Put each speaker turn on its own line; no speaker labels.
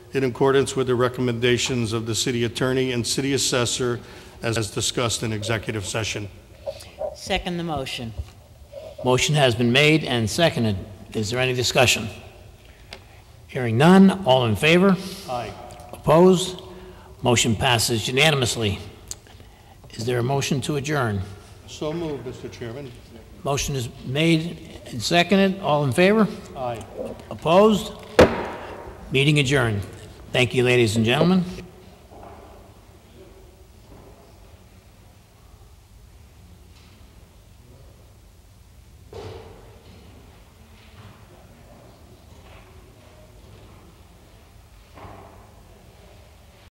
in accordance with the recommendations of the city attorney and city assessor as discussed in executive session.
Second the motion.
Motion has been made and seconded. Is there any discussion? Hearing none, all in favor?
Aye.
Opposed? Motion passes unanimously. Is there a motion to adjourn?
So moved, Mr. Chairman.
Motion is made and seconded. All in favor?
Aye.
Opposed? Meeting adjourned. Thank you, ladies and gentlemen.